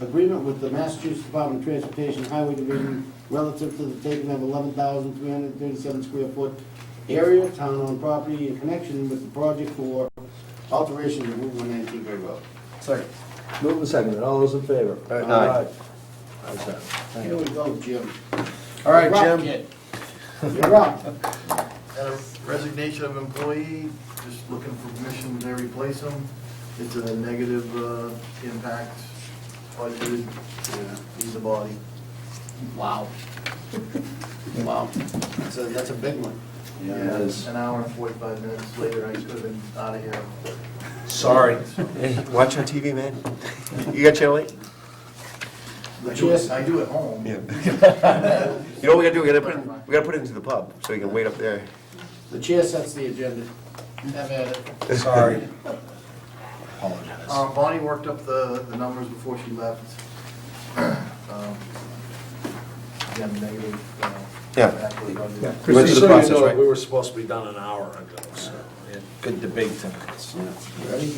agreement with the Massachusetts Department of Transportation Highway Division relative to the taking of eleven thousand three hundred thirty-seven square foot area of town-owned property in connection with the project for alteration of Route one nineteen Great Road. Second. Move the second, all those in favor? Aye. Ayes have it. Thank Here you. we go, Jim. All right, You're up, Jim. kid. You're up. At a resignation of employee, just looking for permission to replace him. It's a negative uh, impact, budgeted, he's a body. Wow. Wow. That's a, that's a big one. Yeah, it is. An hour and forty-five minutes later, I could have been out of here. Sorry. Watch on TV, man. You got channel eight? I do it, I do it home. Yeah. You know what we gotta do? We gotta put, it- we gotta put it into the pub, so you can wait up there. The chair sets the agenda. Have at it. Sorry. Apologize. Um, Bonnie worked up the, the numbers before she left. Um, Again, negative. uh, Yeah. impact with budget. We went Just so through the you process, know, right? We were supposed to be done an hour ago, so. Good debate tonight. Ready?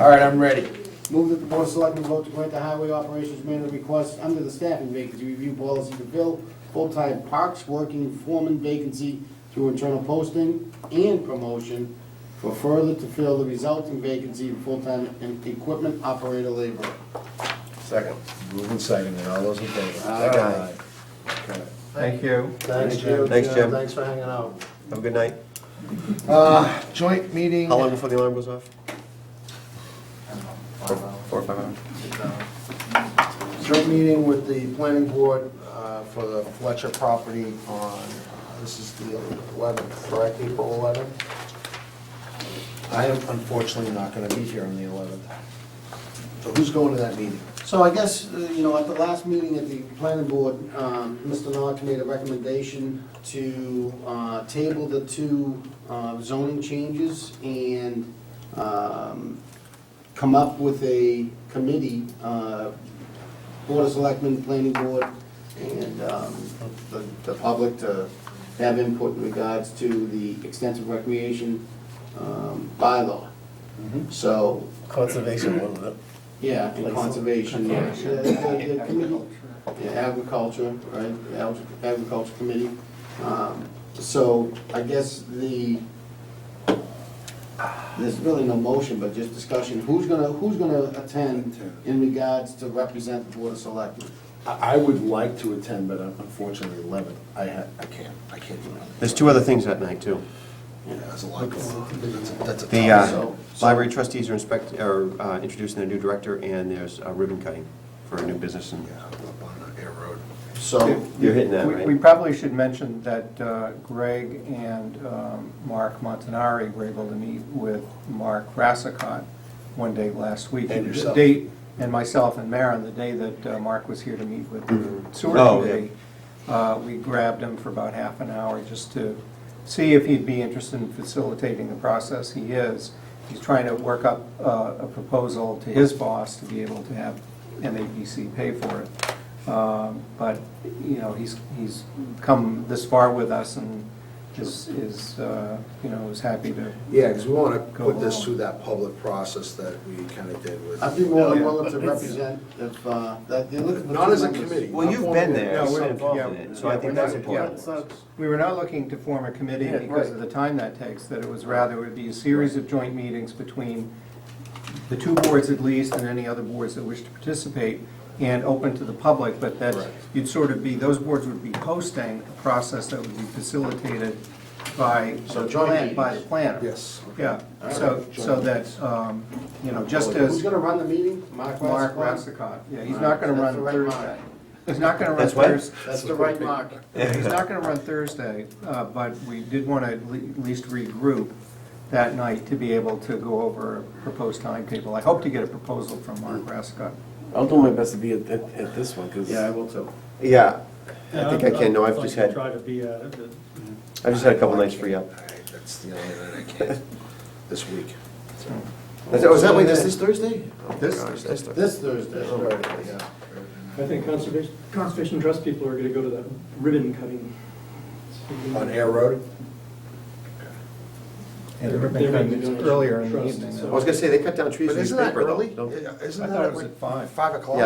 All right, I'm ready. Move that the board of selectmen vote to grant the highway operations manager request under the staffing vacancy review policy to fill full-time parks working foreman vacancy through internal posting and promotion for further to fill the resulting vacancy in full-time and equipment operator laborer. Second. Move the second, all those in favor? Aye. Aye. Okay. Thank you. Thanks, Jim. Thanks, Jim. Thanks for hanging out. Have a good night. Uh, Joint meeting. How long before the alarm goes off? I don't know, five hours, Four or five hours? six hours. Joint meeting with the planning board uh, for the Fletcher property on, uh, this is the 11th, correct, April 11th? I am unfortunately not going to be here on the 11th. So who's going to that meeting? So I guess, uh, you know, at the last meeting at the planning board, um, Mr. Nock made a recommendation to uh, table the two uh, zoning changes and um, come up with a committee, uh, Board of Selectmen, Planning Board, and um, the the public to have input in regards to the extensive recreation um, bylaw. So, Conservation, one of them. yeah, and conservation, yeah. The- the- the committee- yeah, Agriculture, right, the Ag- agriculture committee. Um, So I guess the, there's really no motion, but just discussion, who's gonna, who's gonna attend in regards to represent the board of selectmen? I I would like to attend, but unfortunately 11th, I ha- I can't, I can't do it. There's two other things that night, too. Yeah, That's a lot. That's a- That's a The tough, uh, So- so- library trustees are inspect, are uh, introducing their new director, and there's uh, ribbon cutting for a new business, and yeah, up on the air road. So, you're hitting that, We- right? We probably should mention that uh, Greg and um, Mark Montanari were able to meet with Mark Rassicot one day last week. And The yourself. day- And myself and Maren, the day that uh, Mark was here to meet with the sewer Oh, yeah. committee. uh, We grabbed him for about half an hour just to see if he'd be interested in facilitating the process. He is. He's trying to work up uh, a proposal to his boss to be able to have MAPC pay for it. Um, But, you know, he's, he's come this far with us and is, is, uh, you know, is happy to. Yeah, because we want to Go put this along. through that public process that we kind of did with. I'd be more than willing to represent if, uh, that, they're looking for. Not two as a members. committee. Well, you've been there, No, so we're- involved yeah, in it, so I yeah, think we're that's not- important. yeah. We were not looking to form a committee Yeah, because of right. the time that takes, that it was rather, it would be a series of joint meetings between the two boards at least and any other boards that wish to participate and open to the public, but that you'd sort of be, those boards would be hosting a process that would be facilitated by, So the joint plan- by the meetings. planner. Yes. Yeah, so, so that, um, you know, just as. Who's gonna run the meeting? Mark Mark Rassicot? Rassicot, yeah, he's not gonna That's the run right Thursday. mark. He's not gonna run That's what? Thursday. That's the right mark. He's not gonna run Thursday, uh, but we did wanna at le- at least regroup that night to be able to go over a proposed timetable. I hope to get a proposal from Mark Rassicot. I'll do my best to be at, at, at this one, because Yeah, I will too. Yeah, I think I can, no, I've just had, to be uh, at it. I've just had a couple nights free up. All right, That's the only night I can't, this week. That's- Oh, is that way This this? this Thursday? This? This Thursday. This Thursday. Oh, Yeah. I think conservation, conservation trust people are gonna go to that ribbon cutting. On Air Road? And They're- we're they're thinking making it's earlier in the donations, evening. trust, I so- was gonna say, they cut down trees But in this isn't that paper, though. early? don't they? Isn't I that? thought it was like at five. Five o'clock?